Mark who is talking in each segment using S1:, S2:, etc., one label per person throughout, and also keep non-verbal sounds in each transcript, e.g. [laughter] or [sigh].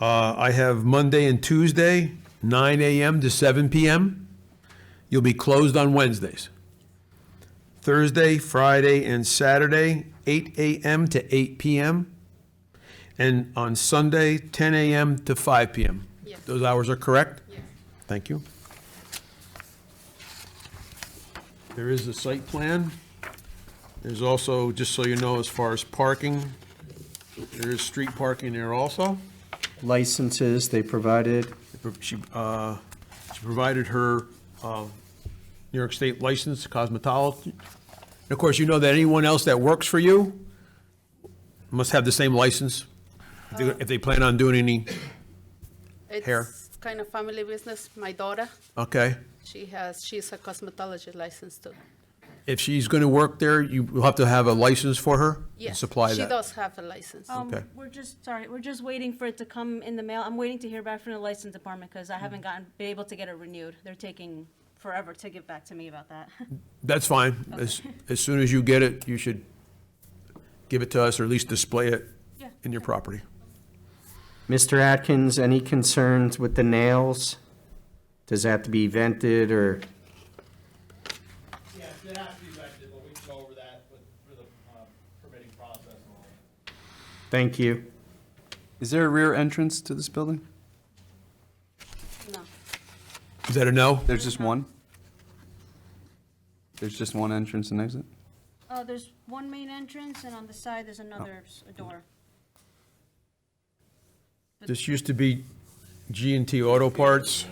S1: Uh, I have Monday and Tuesday, 9 AM to 7 PM. You'll be closed on Wednesdays. Thursday, Friday, and Saturday, 8 AM to 8 PM. And on Sunday, 10 AM to 5 PM.
S2: Yes.
S1: Those hours are correct?
S2: Yes.
S1: Thank you. There is the site plan. There's also, just so you know, as far as parking, there is street parking there also.
S3: licenses they provided.
S1: She, uh, she provided her, uh, New York State license, cosmetologist. And of course, you know that anyone else that works for you must have the same license if they- if they plan on doing any,
S2: It's
S1: Hair.
S2: kind of family business. My daughter,
S1: okay?
S2: she has, she's a cosmetology license too.
S1: If she's going to work there, you will have to have a license for her? and
S2: Yes,
S1: Supply
S2: she
S1: that.
S2: does have a license.
S4: Um,
S1: Okay.
S4: we're just, sorry, we're just waiting for it to come in the mail. I'm waiting to hear back from the license department because I haven't gotten, been able to get it renewed. They're taking forever to get back to me about that. [laughs]
S1: That's fine. As, as soon as you get it, you should give it to us or at least display it
S4: Yeah.
S1: in your property.
S3: Mr. Atkins, any concerns with the nails? Does it have to be vented or,
S5: Yes, it has to be vetted, but we can go over that with, through the um, permitting process and all that.
S3: thank you.
S6: Is there a rear entrance to this building?
S2: No,
S1: Is that a no?
S6: There's just one? There's just one entrance and exit?
S4: Uh, there's one main entrance and on the side, there's another door.
S1: This used to be G and T Auto Parts.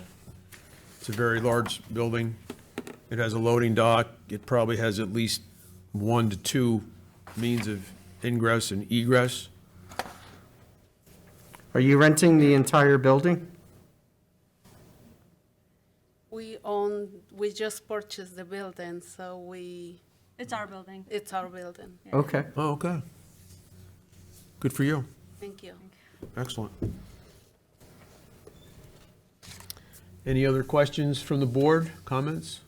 S1: It's a very large building. It has a loading dock. It probably has at least one to two means of ingress and egress.
S3: Are you renting the entire building?
S2: we own, we just purchased the building, so we,
S4: It's our building.
S2: it's our building.
S3: Okay.
S1: Oh, okay. Good for you.
S2: Thank you.
S1: Excellent. Any other questions from the board, comments?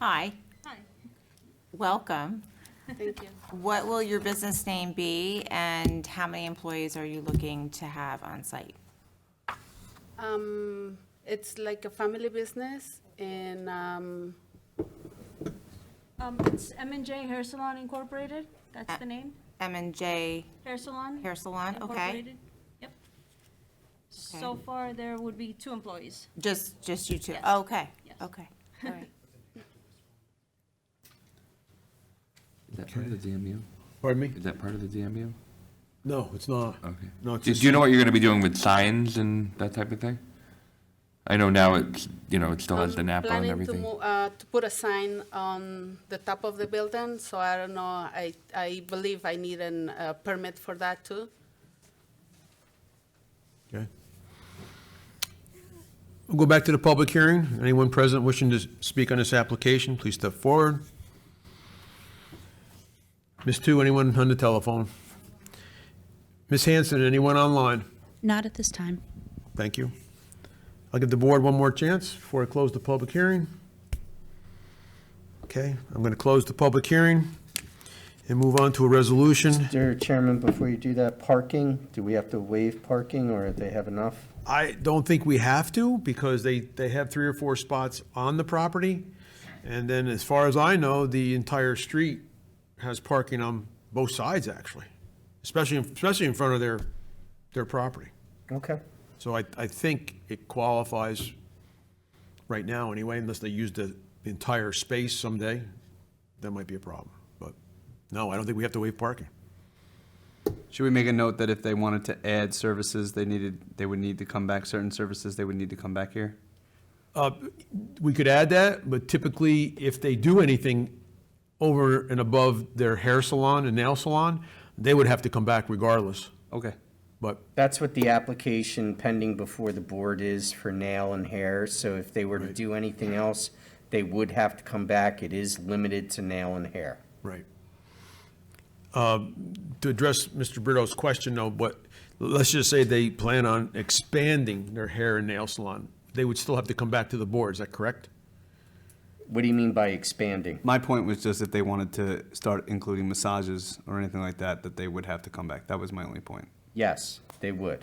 S7: Hi,
S4: Hi.
S7: welcome.
S2: Thank you.
S7: What will your business name be and how many employees are you looking to have on site?
S2: Um, it's like a family business and, um,
S4: Um, it's M and J Hair Salon Incorporated. That's the name,
S7: M and J
S4: Hair Salon.
S7: Hair Salon, okay?
S4: Incorporated. Yep. So far, there would be two employees.
S7: Just, just you two?
S4: Yes.
S7: Okay,
S4: Yes.
S7: okay, all right.
S6: Is that part of the DMU?
S1: Pardon me?
S6: Is that part of the DMU?
S1: No, it's not.
S6: Okay.
S1: No, it's
S8: Do,
S1: just-
S8: do you know what you're going to be doing with signs and that type of thing? I know now it's, you know, it still has the
S2: I'm
S8: NAPA and
S2: planning to
S8: everything.
S2: mo- uh, to put a sign on the top of the building, so I don't know, I, I believe I need an, uh, permit for that too.
S1: Okay. We'll go back to the public hearing. Anyone present wishing to speak on this application, please step forward. Ms. Two, anyone on the telephone? Ms. Hanson, anyone online?
S9: Not at this time.
S1: Thank you. I'll give the board one more chance before I close the public hearing. Okay, I'm going to close the public hearing and move on to a resolution.
S3: Mr. Chairman, before you do that, parking, do we have to waive parking or they have enough?
S1: I don't think we have to because they, they have three or four spots on the property. And then as far as I know, the entire street has parking on both sides actually, especially, especially in front of their, their property.
S3: Okay.
S1: So I, I think it qualifies right now anyway, unless they use the entire space someday. That might be a problem. But no, I don't think we have to waive parking.
S6: Should we make a note that if they wanted to add services, they needed, they would need to come back, certain services, they would need to come back here?
S1: We could add that, but typically, if they do anything over and above their hair salon and nail salon, they would have to come back regardless.
S6: Okay.
S1: But
S3: That's what the application pending before the board is for nail and hair. So if they were to do anything else, they would have to come back. It is limited to nail and hair.
S1: Right. Um, To address Mr. Brito's question, though, but let's just say they plan on expanding their hair and nail salon. They would still have to come back to the board, is that correct?
S3: What do you mean by expanding?
S6: My point was just if they wanted to start including massages or anything like that, that they would have to come back. That was my only point.
S3: Yes, they would.